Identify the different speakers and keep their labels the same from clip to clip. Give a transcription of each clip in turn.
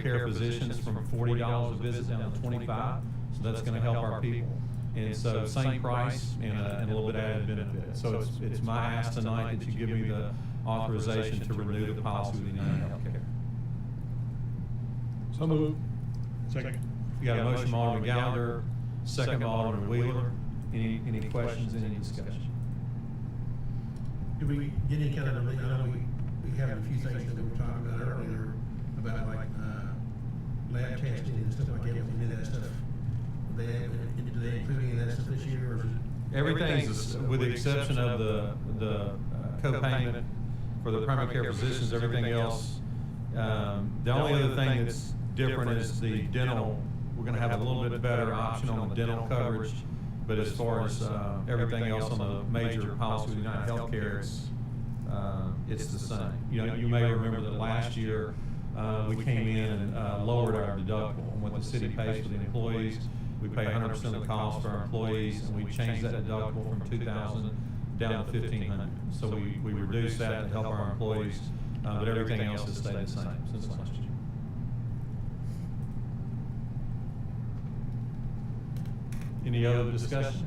Speaker 1: care physicians from forty dollars a visit down to twenty-five, so that's gonna help our people. And so same price and a, and a little bit added benefit. So it's, it's my ask tonight that you give me the authorization to renew the policy with United Healthcare.
Speaker 2: So moved.
Speaker 3: Second.
Speaker 1: You got a motion from Alderman Gallagher, second by Alderman Wheeler. Any, any questions, any discussion?
Speaker 4: Do we get any kind of relief, I know we, we have a few things that we were talking about earlier, about like, uh, lab testing and stuff like that, was any of that stuff? They, do they include any of that stuff this year, or is it?
Speaker 1: Everything's, with the exception of the, the uh, co-payment for the primary care physicians, everything else. um, The only other thing that's different is the dental, we're gonna have a little bit better option on the dental coverage. But as far as, uh, everything else on the major policy with United Healthcare, it's, uh, it's the same. You know, you may remember that last year, uh, we came in and, uh, lowered our deductible on what the city pays for the employees. We pay hundred percent of the cost for our employees, and we changed that deductible from two thousand down to fifteen hundred. So we, we reduced that to help our employees, uh, but everything else has stayed the same since last year. Any other discussion?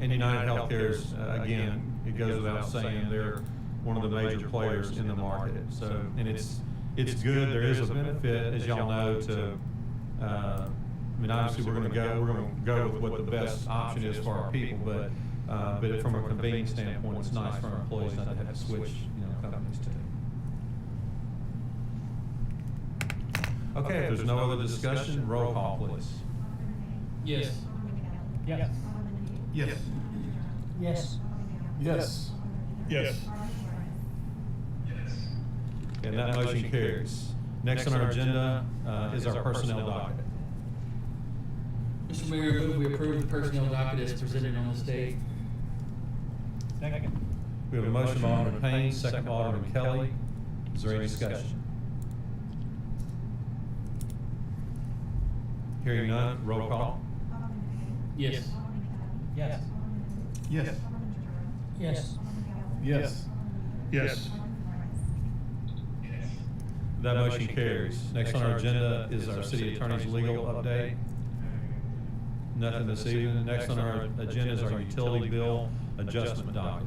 Speaker 1: And United Healthcare's, uh, again, it goes without saying, they're one of the major players in the market. So, and it's, it's good, there is a benefit, as y'all know, to, uh, I mean, obviously, we're gonna go, we're gonna go with what the best option is for our people, but, uh, but from a convenience standpoint, it's nice for our employees not to have to switch, you know, companies too. Okay, if there's no other discussion, roll call, please.
Speaker 5: Yes.
Speaker 2: Yes.
Speaker 3: Yes.
Speaker 6: Yes.
Speaker 2: Yes.
Speaker 3: Yes.
Speaker 1: And that motion carries. Next on our agenda uh, is our personnel docket.
Speaker 5: Mr. Mayor, I move we approve the personnel docket as presented on this date.
Speaker 3: Second.
Speaker 1: We have a motion by Alderman Payne, second by Alderman Kelly. Is there any discussion? Hearing none, roll call.
Speaker 5: Yes.
Speaker 2: Yes.
Speaker 3: Yes.
Speaker 6: Yes.
Speaker 2: Yes.
Speaker 3: Yes.
Speaker 1: That motion carries. Next on our agenda is our city attorney's legal update. Nothing this evening. Next on our agenda is our utility bill adjustment docket.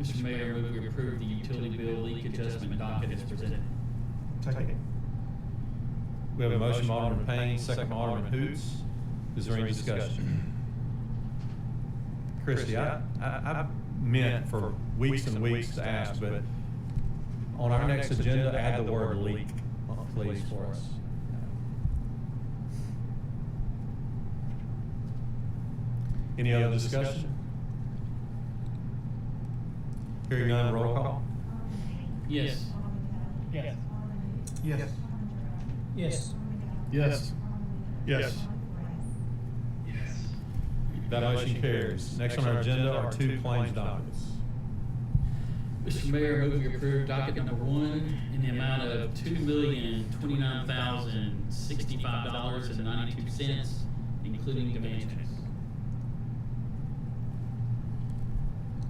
Speaker 5: Mr. Mayor, I move we approve the utility bill leak adjustment docket as presented.
Speaker 3: Second.
Speaker 1: We have a motion by Alderman Payne, second by Alderman Hoots. Is there any discussion? Christie, I, I, I meant for weeks and weeks to ask, but on our next agenda, add the word leak, uh, please, for us. Any other discussion? Hearing none, roll call.
Speaker 5: Yes.
Speaker 2: Yes.
Speaker 3: Yes.
Speaker 6: Yes.
Speaker 2: Yes.
Speaker 3: Yes.
Speaker 1: That motion carries. Next on our agenda are two claims documents.
Speaker 5: Mr. Mayor, I move we approve docket number one in the amount of two million, twenty-nine thousand, sixty-five dollars and ninety-two cents, including demand checks.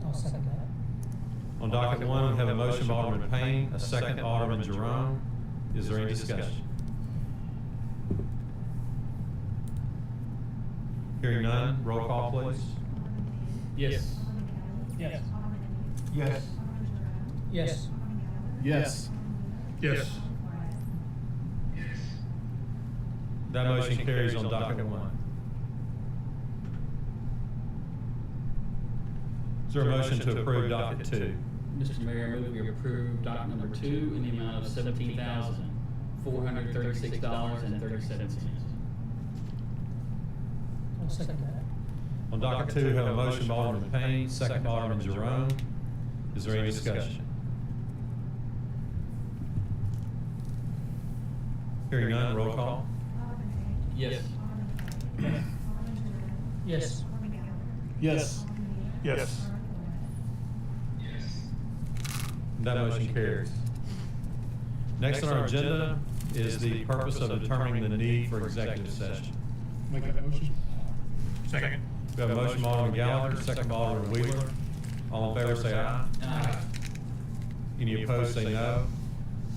Speaker 6: I'll second that.
Speaker 1: On docket one, we have a motion by Alderman Payne, a second by Alderman Jerome. Is there any discussion? Hearing none, roll call please.
Speaker 5: Yes.
Speaker 2: Yes.
Speaker 3: Yes.
Speaker 6: Yes.
Speaker 2: Yes.
Speaker 3: Yes.
Speaker 1: That motion carries on docket one. Is there a motion to approve docket two?
Speaker 5: Mr. Mayor, I move we approve docket number two in the amount of seventeen thousand, four hundred thirty-six dollars and thirty-seven cents.
Speaker 6: I'll second that.
Speaker 1: On docket two, we have a motion by Alderman Payne, second by Alderman Jerome. Is there any discussion? Hearing none, roll call.
Speaker 5: Yes.
Speaker 6: Yes.
Speaker 2: Yes.
Speaker 3: Yes.
Speaker 1: That motion carries. Next on our agenda is the purpose of determining the need for executive session.
Speaker 2: Make that motion.
Speaker 3: Second.
Speaker 1: We have a motion by Alderman Gallagher, second by Alderman Wheeler. All in favor, say aye.
Speaker 5: Aye.
Speaker 1: Any opposed, say no.